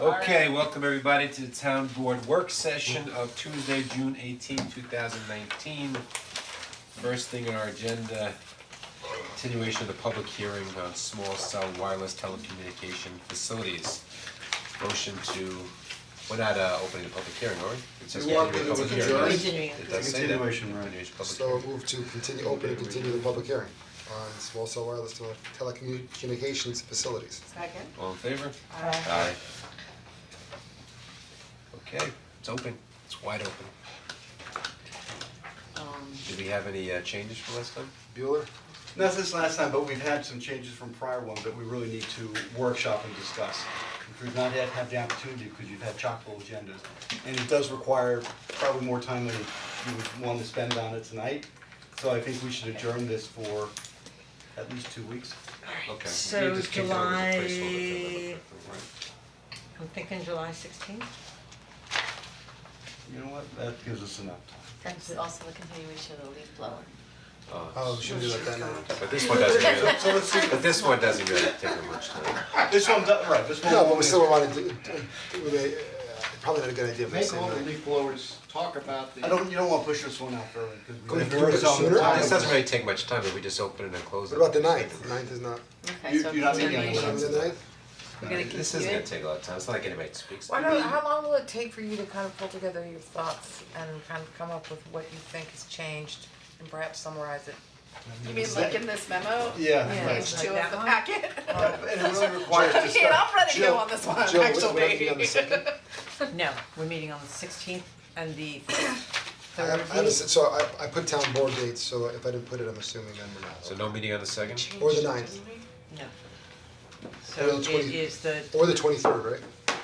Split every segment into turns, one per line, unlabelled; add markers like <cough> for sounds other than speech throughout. Okay, welcome everybody to the town board work session of Tuesday, June 18, thousand nineteen. First thing on our agenda, continuation of the public hearing on small cell wireless telecommunication facilities. Motion to, we're not uh opening the public hearing, are we? It's just
You want me
continuing the
to
public hearing, right?
adjourn?
It does say that,
Continuation, right.
continuation public
So
hearing.
I move to continue, open and continue the public hearing on small cell wireless tele- telecommunications facilities.
Second.
All in favor? Okay, it's open, it's wide open.
Um,
Did we have any uh changes from last time?
Bueller?
Not since last time, but we've had some changes from prior one that we really need to workshop and discuss. Which we've not yet had the opportunity, because you've had chock full agendas. And it does require probably more time than you would want to spend on it tonight. So I think we should adjourn this for at least two weeks.
Okay.
So
You just kicked it over as a placeholder, if I remember
July-
correctly, right?
I'm thinking July sixteenth.
You know what, that gives us enough time.
That's also the continuation of the leaf blower.
Oh, we should do that then.
But this one doesn't really,
So let's see,
but this one doesn't really take much time.
this one, right, this one.
No, but we still wanna do, do- we, uh, probably not a good idea, but
Make
same
all the
night.
leaf blowers talk about the.
I don't, you don't wanna push this one out early, because
Could
we
we
have
do it
some
sooner?
time.
This doesn't really take much time, if we just open it and close it.
What about the ninth? The ninth is not,
Okay,
You-
so
you're not making any
continuation.
Remember
<laughs>
the ninth?
We're gonna continue
This isn't gonna
it.
take a lot of time, it's not like anybody speaks.
Why don't, how long will it take for you to kind of pull together your thoughts and kind of come up with what you think has changed and perhaps summarize it?
You mean like in this memo?
Yeah, right.
Page two of the packet?
<laughs>
Uh, And it really requires
I mean,
discussion.
I'm ready to
Jill-
go on this one, actually.
Jill, what- what are you on
<laughs>
the
<laughs>
second?
<laughs>
Um,
No, we're meeting on the sixteenth and the
I
third
have, I have a s- so I I put town board dates, so if I didn't put it, I'm assuming then we're not.
So no meeting on the second?
Or the ninth,
No.
Well,
So it
20
is the,
or the twenty-third, right?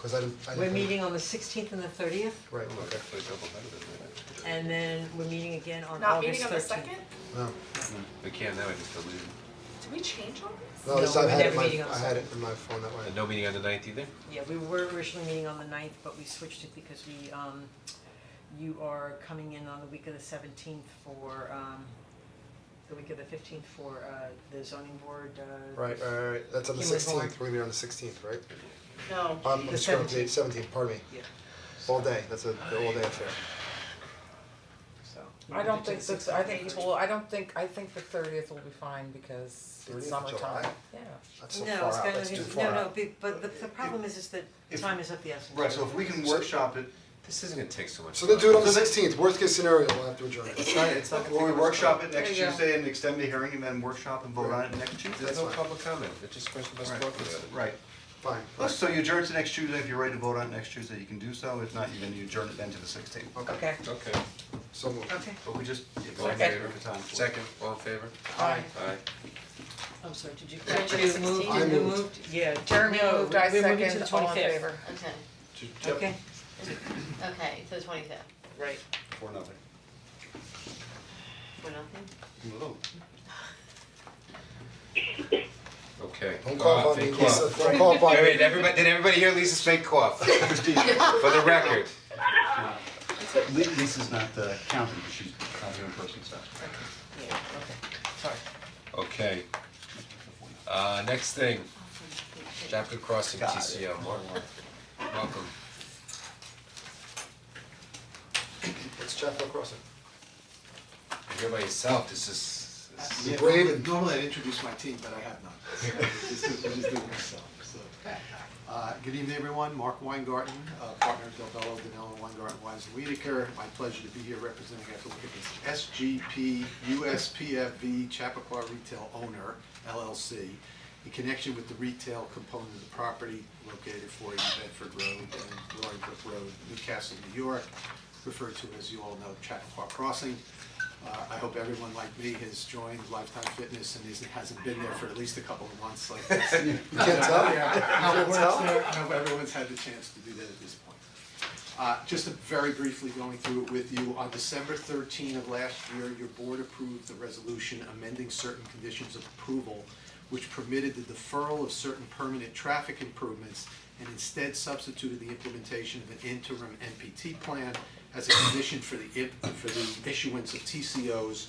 Cause I didn't, I didn't.
we're
put it-
meeting on the sixteenth and the thirtieth,
Right, okay,
Actually, double better than that.
and then we're meeting again on
Not
August
meeting on the
thirteenth.
second?
no,
We can't, now we just delete it.
Did we change all this?
no, this
No,
I
we're
had it
never
in my,
meeting on the
I had it
second.
in my phone that way.
And Uh, no meeting on the ninth either?
Yeah, we were originally meeting on the ninth, but we switched it because we, um, you are coming in on the week of the seventeenth for, um, the week of the fifteenth for, uh, the zoning board, uh,
Right, right, right, right. that's on the
He was born.
sixteenth, we're gonna be on the sixteenth, right?
No.
Um,
The
I'm sorry, the seventeenth, pardon me.
Yeah.
All day, that's a, the all day affair.
so.
I don't think that's, I think, well, I don't think, I think the thirtieth will be fine because
30th of
it's summertime,
July?
yeah.
That's so far out, that's too far out.
No, it's gonna, no, be- but the, the problem is, is that
If-
time is of the essence.
Right, so if we can workshop it,
This isn't gonna take so much
So
time.
then do it on the sixteenth, worst case scenario, we'll have to adjourn it.
It's not, it's not gonna take
or we
much
workshop
time.
it next
There you go.
Tuesday and extend the hearing and then workshop and vote on it next Tuesday.
There's no
That's fine.
public comment, it's just a question of us
Right,
talking about it.
right.
Fine,
Let's- So you adjourn to next Tuesday, if you're ready to vote on it next Tuesday, you can do so, if not, you then you adjourn it then to the sixteenth.
Okay,
Okay,
so moved.
okay,
But we just, yeah, go
all in
ahead
favor?
and take the time for it.
Second, all in favor?
Aye.
Aye.
I'm sorry, did you,
Jeremy
did you
moved.
move,
I
did you
moved.
moved, yeah,
Jeremy
no,
moved, I
we're moving to the
second, all in
25th.
favor.
Okay,
Yep,
Okay,
okay, so the twenty-fifth,
right,
For nothing.
for nothing?
Whoa.
Okay.
Don't cough
Uh,
on me,
fake
Lisa,
cough.
don't cough on
Wait,
me.
wait, everybody, did everybody hear Lisa's fake
<laughs>
cough? For the record.
Li- Lisa's not uh, counting, but she's not here in person, so.
yeah, okay, sorry.
Okay. Uh, next thing, Chapel Crossing
Got it.
TCO, Mark, welcome.
It's Chapel Crossing.
You're here by yourself, this is, this is-
Yeah,
Brave
normally-
and-
Normally I introduce my team, but I have none. This is, this is doing myself, so. Uh, good evening, everyone. Mark Weingarten, uh, partner of Del Bello, Danilo Weingarten, Wise and Wiedeker. My pleasure to be here representing, I have to look at this, SGP USPFV Chappaqua Retail Owner LLC in connection with the retail component of the property located at 40 Bedford Road and Roaring Brook Road, Newcastle, New York, referred to as you all know, Chappaqua Crossing. Uh, I hope everyone like me has joined Lifetime Fitness and isn't, hasn't been there for at least a couple of months like this.
You can't tell?
I
You can't tell?
hope everyone's had the chance to do that at this point. Uh, just very briefly going through it with you, on December thirteen of last year, your board approved the resolution amending certain conditions of approval, which permitted the deferral of certain permanent traffic improvements and instead substituted the implementation of an interim NPT plan as a condition for the, imp- for the issuance of TCOs